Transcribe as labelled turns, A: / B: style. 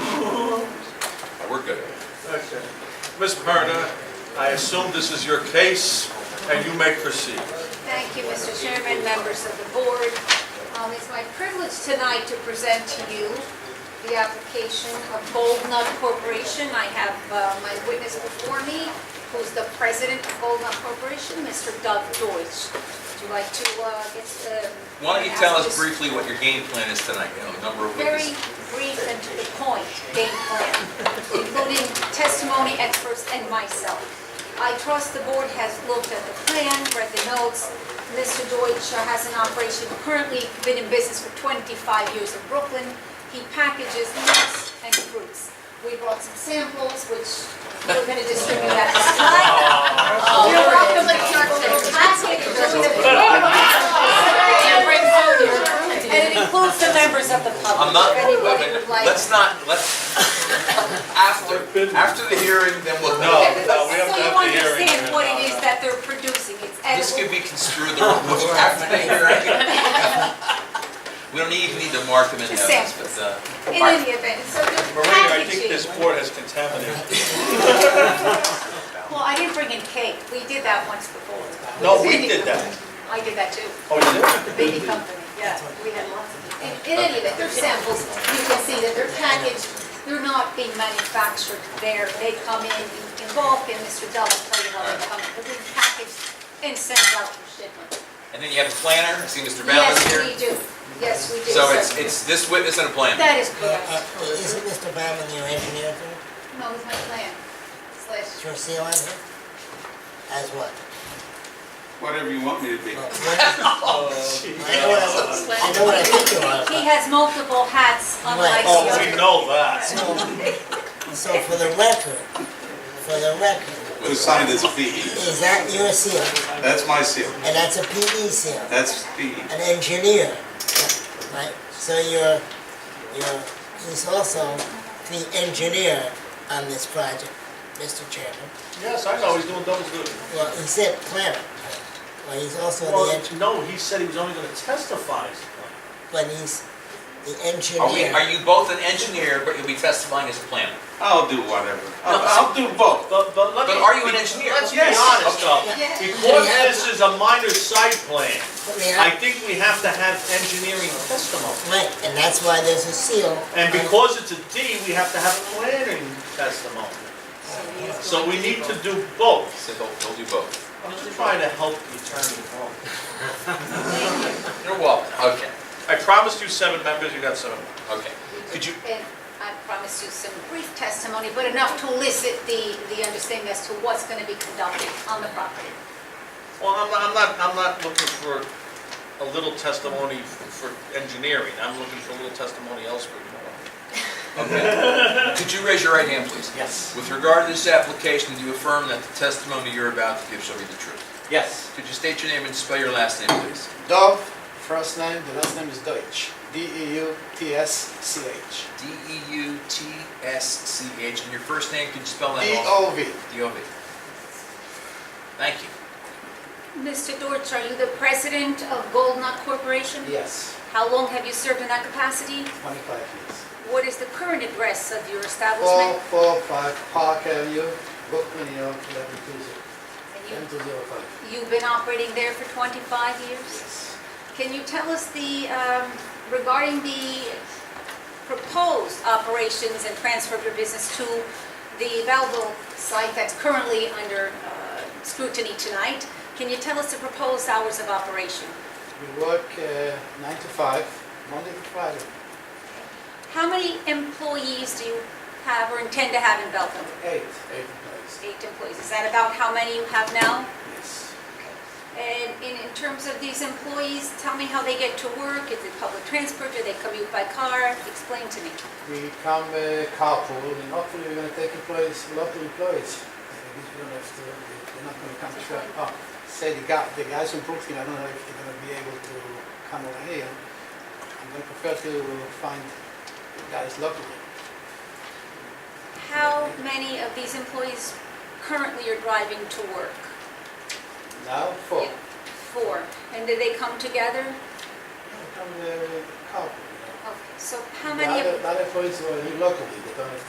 A: Oh,
B: Ms. Myrna, I assume this is your case, and you may proceed.
C: Thank you, Mr. Chairman, members of the board. Um, It's my privilege tonight to present to you the application of Gold Nut Corporation. I have uh, my witness before me, who's the president of Gold Nut Corporation, Mr. Doug Deutsch. Would you like to uh, get... um,
A: Why don't you tell us
C: ask this-
A: briefly what your game plan is tonight, you know, the number of
C: very
A: witnesses?
C: brief and to the point game plan, including testimony experts and myself. I trust the board has looked at the plan, read the notes. Mr. Deutsch has an operation currently been in business for 25 years in Brooklyn. He packages nuts and fruits. We brought some samples, which we're going to distribute at this time. Uh, We're up in the package with a And it includes the members of the public.
A: I'm not,
C: if anybody
A: wait a minute,
C: would like-
A: let's not, let's, after, after the hearing, then we'll know.
B: No.
C: Okay, but
B: we have to have the
C: So you
B: hearing here.
C: understand what it is that they're producing, it's
A: This could
C: edible.
A: be construed the wrong way after the hearing. We don't even need to mark them in
C: Just
A: evidence, but,
C: samples.
A: uh,
C: In
A: all right.
C: any event, so there's
B: Maria, I think this
C: packaging.
B: board has contaminated.
C: Well, I didn't bring in cake, we did that once before.
B: No, we did that.
C: I did that too.
B: Oh, you did?
C: the baby company, yeah, we had lots of them. In- In any event, they're samples, you can see that they're packaged, they're not being manufactured there, they come in, involved in Mr. Dell's plate, they're being packaged and sent out for shipment.
A: and then you have a planner, I see Mr. Ballas here.
C: Yes, we do, yes, we do.
A: So it's,
C: sir.
A: it's this witness and a planner.
C: That is
D: Uh,
C: correct,
D: Isn't Mr. Bauman your engineer too?
C: no, it's my plan,
D: Is
C: slash,
D: your seal on here? As what?
E: Whatever you want me to be.
D: Well, what-
B: Uh,
D: I know what I- I know what I think you are.
C: he has multiple hats, unlike
D: Oh,
C: the
B: Oh, we
C: other.
B: know that.
D: but- So so for the record, for the record,
E: Who signed as PE?
D: is that your seal?
E: That's my seal.
D: And that's a PE seal,
E: That's PE.
D: an engineer, right? So you're, you're, he's also the engineer on this project, Mr. Chairman.
B: Yes, I know, he's doing double duty.
D: Well, he said planner, well, he's also the
F: Well,
D: engineer,
F: no, he said he was only gonna testify.
D: but he's the engineer.
A: Are we, are you both an engineer, but you'll be testifying as a planner?
E: I'll do whatever. I'll, I'll do both.
F: But, but let me.
A: But are you an engineer?
F: Let's be
E: Yes.
F: honest though,
C: Yeah.
F: because this is a minor site plan, I
D: Yeah,
F: think we have to have engineering testimony.
D: right, and that's why there's a seal.
F: And because it's a D, we have to have planning testimony. So we need to do both.
A: So he'll, he'll do both.
F: I'm just trying to help the attorney along.
A: You're welcome, okay,
B: I promised you seven members, you got seven.
A: okay. Could you,
C: And I promised you some brief testimony, but enough to elicit the, the understanding as to what's going to be conducted on the property.
B: Well, I'm not, I'm not, I'm not looking for a little testimony for engineering, I'm looking for a little testimony elsewhere.
A: Could you raise your right hand, please?
F: Yes.
A: With regard to this application, do you affirm that the testimony you're about to give shall be the truth?
G: Yes.
A: Could you state your name and spell your last name, please?
G: Dov, first name, the last name is Deutsch. E D-E-U-T-S-C-H.
A: E D-E-U-T-S-C-H, and your first name, could you spell that also?
G: D-O-V.
A: D-O-V. Thank you.
C: Mr. Dortch, are you the president of Gold Nut Corporation?
G: Yes,
C: How long have you served in that capacity?
G: 25 years.
C: What is the current address of your
G: 4,
C: establishment?
G: 4, 5 Park Avenue, Brooklyn, New York, 1120,
C: And
G: 1205.
C: you- You've been operating there for 25 years?
G: Yes.
C: Can you tell us the, um, regarding the proposed operations and transfer of your business to the Belleville site that's currently under uh, scrutiny tonight? Can you tell us the proposed hours of operation?
G: We work uh, 9 to 5, Monday to Friday.
C: How many employees do you have or intend to have in Belleville?
G: 8, 8 employees.
C: Eight employees. Is that about how many you have now?
G: Yes.
C: And in, in terms of these employees, tell me how they get to work. Is it public transport? Do they commute by car? Explain to me.
G: We come uh, carpool, and hopefully we're going to take employees, local employees. Uh, these we don't have to, they're not going to come to shop. Oh, say the guy, the guys from Brooklyn, I don't know if they're going to be able to come over here. I'm going to prefer to find guys locally.
C: How many of these employees currently are driving to work?
G: Now, four.
C: Yeah, Four. And do they come together?
G: Come uh, carpool. you know.
C: Okay. So how
G: The
C: many? of-
G: other, the other employees were here locally, they don't have to